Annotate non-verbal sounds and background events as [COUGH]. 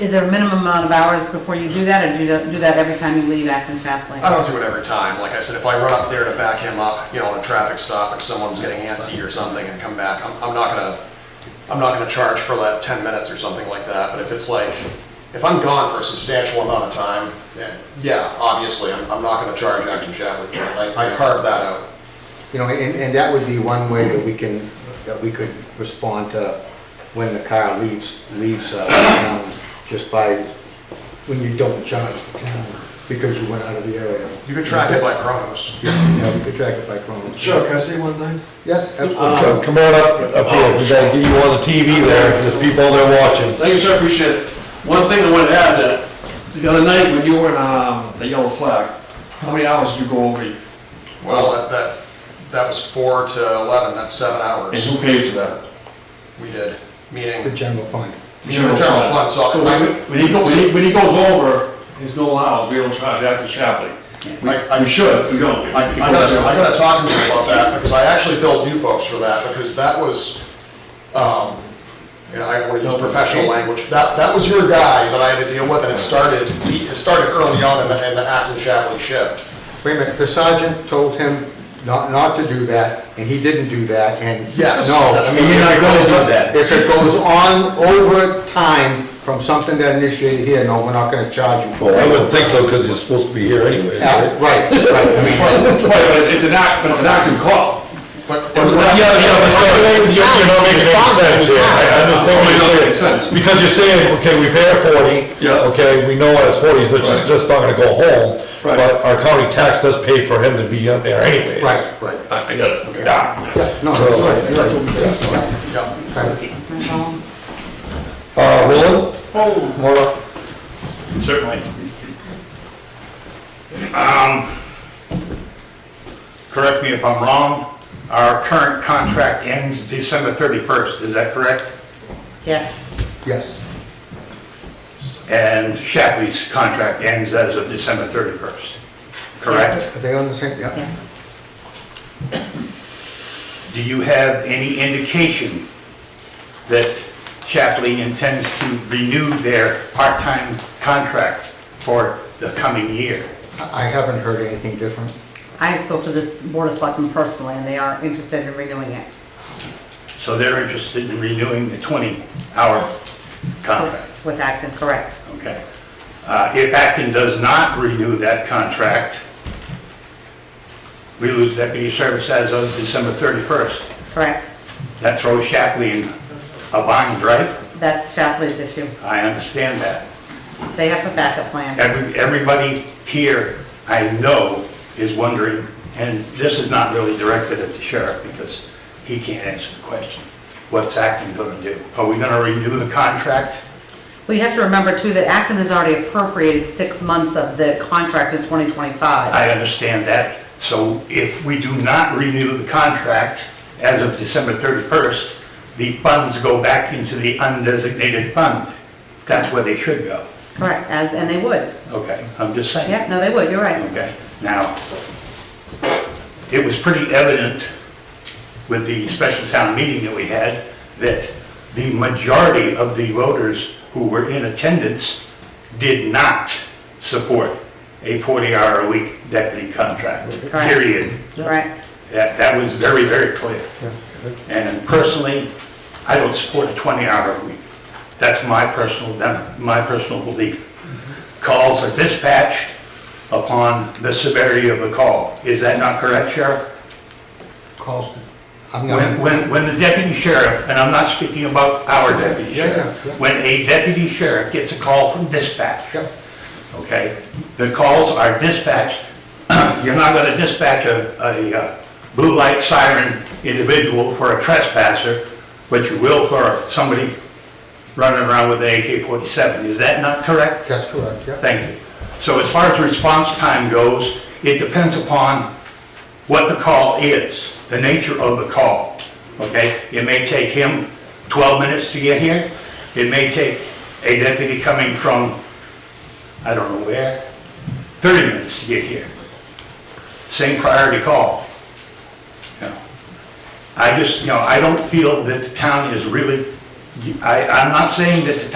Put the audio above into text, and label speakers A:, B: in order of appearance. A: Is there a minimum amount of hours before you do that, or do you do that every time you leave Acton Chaplain?
B: I don't do it every time. Like I said, if I run up there to back him up, you know, on a traffic stop, if someone's getting antsy or something and come back, I'm, I'm not gonna, I'm not gonna charge for that ten minutes or something like that. But if it's like, if I'm gone for a substantial amount of time, then yeah, obviously, I'm, I'm not gonna charge Acton Chaplain. for it. I, I carved that out.
C: You know, and, and that would be one way that we can, that we could respond to when the car leaves, leaves uh, town, just by, when you don't charge the town because you went out of the area.
B: You could track it by Chronos.
C: Yeah, we could track it by chronos.
D: Sure, can I say one thing?
C: Yes,
E: Come
C: absolutely.
E: come on up, up here, we gotta get you on the TV there, there's people there watching.
D: Thank you, sir, appreciate it. One thing I want to add, that the other night when you were in, um, the yellow flag, how many hours did you go over? And
B: Well, that, that, that was four to eleven, that's seven
D: who
B: hours.
D: pays for that?
B: We did, meaning,
C: The
B: the
C: general fund.
B: general fund, so
D: So
B: I,
D: when when he goes, when he- when he goes over, there's no hours, we don't charge Acton Shapley.
B: I- I-
D: We should, we don't.
B: I I gotta, I gotta talk to you about that, because I actually billed you folks for that, because that was, um, you know, I wanna use professional language, that, that was your guy that I had to deal with, and it started, it started early on in the, in the Acton Chaplain shift.
C: Wait a minute, the sergeant told him not, not to do that, and he didn't do that, and.
B: Yes,
C: No.
B: that's what we're not
E: gonna do that.
C: If it goes on over time from something that initiated here, no, we're not gonna charge you for
E: Well, I
C: it.
E: wouldn't think so, because you're supposed to be here anyway.
C: Yeah, [LAUGHS]
E: right?
C: Right, right, I mean.
D: Right, but it's- it's an act, but it's an active call.
B: But,
E: Yeah,
B: but
E: yeah, but so, you- you're not making any sense here, I understand what you're saying. Because you're saying, okay, we pay our forty,
D: Yeah.
E: okay, we know it's forty, which
D: Right.
E: is just not gonna go home,
D: Right.
E: but our county tax does pay for him to be out there anyways.
C: Right, right.
D: I, I get it. Okay.
E: Yeah.
C: No,
E: So-
C: you're right, you're right.
B: yeah.
E: Uh, Roland? Come on up.
F: Certainly. Um, Correct me if I'm wrong, our current contract ends December 31st, is that correct?
A: Yes.
C: Yes,
F: And Shapley's contract ends as of December 31st, correct?
C: are they on the same, yeah.
A: Yes.
F: Do you have any indication that Shapley intends to renew their part-time contract for the coming year?
C: I I haven't heard anything different.
A: I spoke to this Board of Selectmen personally, and they are interested in renewing it.
F: So they're interested in renewing the 20-hour contract?
A: With Acton, correct.
F: Okay. Uh, If Acton does not renew that contract, we lose deputy service as of December 31st.
A: Correct.
F: That throws Shapley in a bind, right?
A: That's Shapley's issue.
F: I understand that.
A: They have a backup plan.
F: Every Everybody here, I know, is wondering, and this is not really directed at the sheriff because he can't answer the question. What's Acton going to do? Are we going to renew the contract?
A: We have to remember too that Acton has already appropriated six months of the contract in 2025.
F: I understand that. So if we do not renew the contract as of December 31st, the funds go back into the undesignated fund. That's where they should go.
A: Correct, as, and they would.
F: Okay, I'm just saying.
A: Yeah, no, they would, you're right.
F: Okay, now, it was pretty evident with the special town meeting that we had that the majority of the voters who were in attendance did not support a 40-hour-a-week deputy contract,
A: Correct.
F: period.
A: Correct.
F: That, that was very, very clear. And personally, I don't support a 20-hour week. That's my personal, that- my personal belief. Calls are dispatched upon the severity of the call. Is that not correct, Sheriff?
C: Calls, I'm
F: When,
C: not,
F: when, when the deputy sheriff, and I'm not speaking about our deputy
C: Yeah, yeah,
F: sheriff,
C: yeah.
F: when a deputy sheriff gets a call from dispatch,
C: Yep.
F: okay, the calls are dispatched, [CLEARS THROAT] you're not gonna dispatch a, a uh, blue light siren individual for a trespasser, but you will for somebody running around with an AK-47. Is that not correct?
C: that's correct, yeah.
F: Thank you. So as far as response time goes, it depends upon what the call is, the nature of the call, okay? It may take him 12 minutes to get here. It may take a deputy coming from, I don't know where, 30 minutes to get here. Same priority call. You know, I just, you know, I don't feel that the town is really, I, I'm not saying that the